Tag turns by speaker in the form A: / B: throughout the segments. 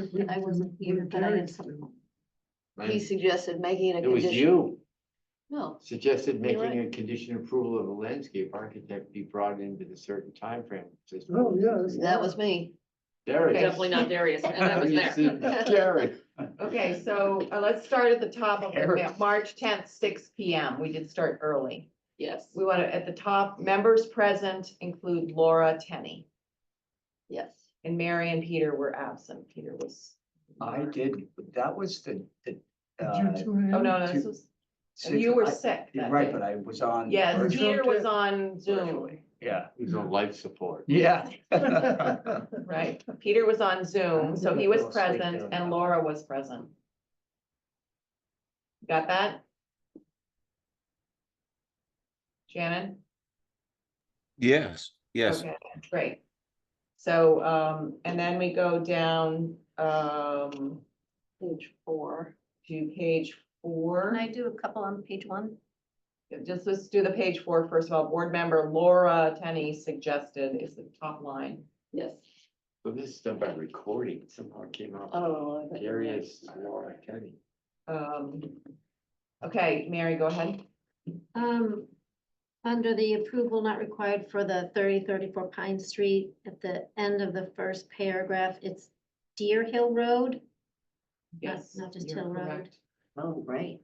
A: was, I wasn't here, but I had some, he suggested making it a
B: It was
A: condition.
B: you
A: No,
B: suggested
A: You're
B: making a condition approval of a landscape architect be brought in with a certain timeframe. It says-
C: Oh, yeah, that's-
A: that was me.
B: There it is.
D: Definitely not Darius, and I was
B: You
D: there.
B: see, Derek.
D: Okay, so uh, let's start at the top of the ma- March tenth, six P M. We did start early.
A: Yes,
D: We want to, at the top, members present include Laura Tenney
A: yes.
D: and Mary and Peter were absent. Peter was.
E: I did, that was the, the. uh,
C: Did you tune in?
D: Oh, no, no, this was,
E: six-
D: you were
E: I-
D: sick. that
E: Right,
D: day.
E: but I was on.
D: Yes,
E: virtual-
D: Peter was on Zoom,
E: virtually, Yeah,
B: He's on life support.
E: yeah.
D: right? Peter was on Zoom, so he was present and Laura was present. Got that? Shannon?
F: Yes, yes.
D: Okay, Great. So, um, and then we go down, um,
A: Page four.
D: to page four.
G: Can I do a couple on page one?
D: Just let's do the page four first of all. Board member Laura Tenney suggested is the top line.
A: Yes.
B: So this is done by recording somehow it came out.
A: Oh. I-
B: Darius Laura Kenny.
D: Um, okay, Mary, go ahead.
G: Um, under the approval not required for the thirty thirty-four Pine Street, at the end of the first paragraph, it's Deer Hill Road.
D: Yes.
G: Not just
D: you're
G: Hill Road.
D: correct.
A: Oh, right.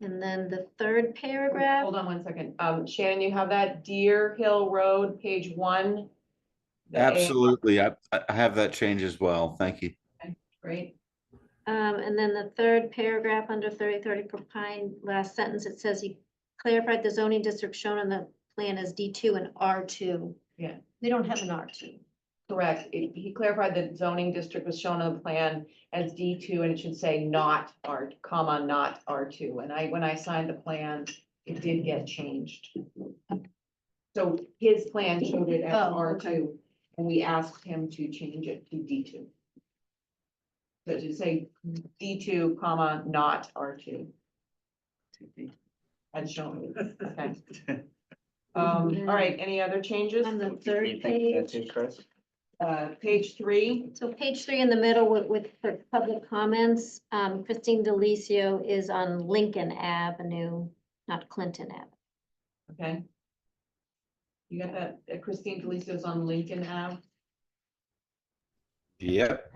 G: And then the third paragraph,
D: Hold on one second. Um, Shannon, you have that Deer Hill Road, page one. the A-
F: Absolutely. I, I have that change as well. Thank you.
D: Great.
G: um, and then the third paragraph under thirty thirty-four Pine, last sentence, it says he clarified the zoning district shown on the plan as D two and R two.
D: Yeah.
G: They don't have an R two.
D: Correct. It- He clarified that zoning district was shown on the plan as D two and it should say not R, comma, not R two. And I, when I signed the plan, it did get changed. So his plan showed it as
G: Oh,
D: R
G: okay.
D: two and we asked him to change it to D two. So to say D two, comma, not R two. And shown, okay. Um, all right, any other changes?
G: On the
E: Do
G: third
E: you think
G: page.
E: That's it, Chris?
D: Uh, page three.
G: So page three in the middle with, with the public comments, um, Christine Delicio is on Lincoln Avenue, not Clinton Ave.
D: Okay. You got that uh, Christine Deliso's on Lincoln Ave,
F: Yep.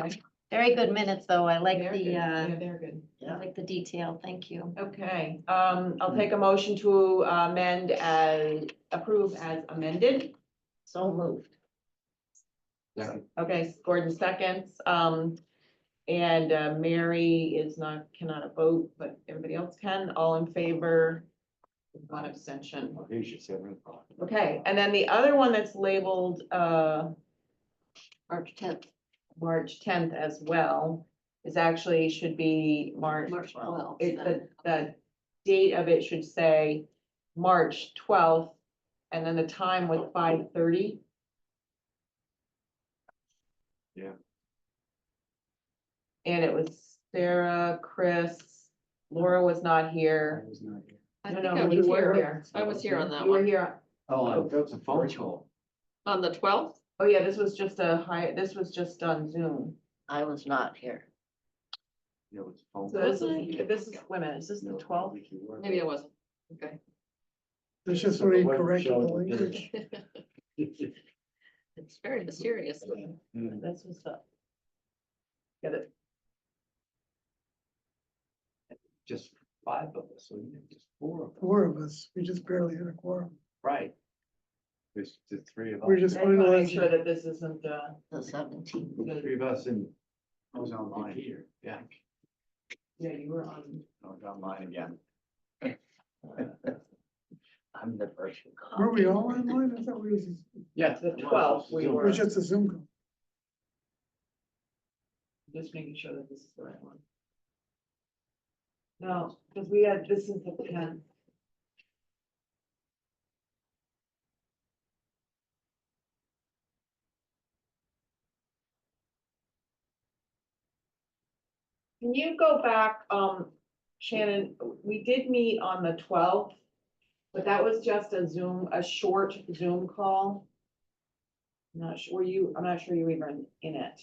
D: okay?
G: Very good minutes, though. I like
D: They're
G: the,
D: good.
G: uh,
D: Yeah, they're good.
G: I like the detail. Thank you.
D: Okay, um, I'll take a motion to amend as, approve as amended.
A: So moved.
D: Okay, Gordon seconds, um, and uh, Mary is not, cannot vote, but everybody else can, all in favor? with One abstention.
B: Well, Here's your seven o'clock.
D: Okay, and then the other one that's labeled, uh,
A: March tenth,
D: March tenth as well is actually should be March.
A: March twelfth.
D: It, the, the date of it should say March twelfth and then the time was five thirty.
B: Yeah.
D: And it was Sarah, Chris, Laura was not
E: I
D: here.
E: was not here.
A: I
D: No,
A: think
D: no,
A: I
D: you
A: was
D: were
A: here.
D: here.
A: I was here on that
D: You were
A: one,
D: here.
E: Oh,
B: Oh,
E: on
B: that was a phone
E: virtual.
B: call.
A: on the twelfth,
D: Oh, yeah, this was just a high, this was just on Zoom.
A: I was not here,
B: Yeah, it was a phone.
D: So this
B: call.
D: is, this is, wait a minute, is this the
B: No,
D: twelfth?
B: we can work.
A: maybe I wasn't, okay.
C: It's just
B: So it
C: very
B: wasn't
C: incorrect.
B: shown
C: the
B: to the
C: language.
B: village.
A: It's very mysterious.
B: Mm.
D: That's what's up. Get it?
B: Just five of us, so you know, just four of us.
C: Four of us, we just barely had a quorum.
B: Right. There's the three of us.
C: We're just
D: I just wanna make
C: finalizing.
D: sure that this isn't, uh,
A: The seventeenth.
B: The Three of us and
E: I was online.
B: here, yeah.
D: yeah, you were on.
E: I was online again. I'm the virtual. call.
C: Were we all online? I thought we was, it
B: Yeah.
D: The 12th we were.
C: was just a Zoom call.
D: Just making sure that this is the right one. No, because we had, this is the ten. Can you go back, um, Shannon, we did meet on the twelfth, but that was just a Zoom, a short Zoom call. Not sure, were you, I'm not sure you were even in it.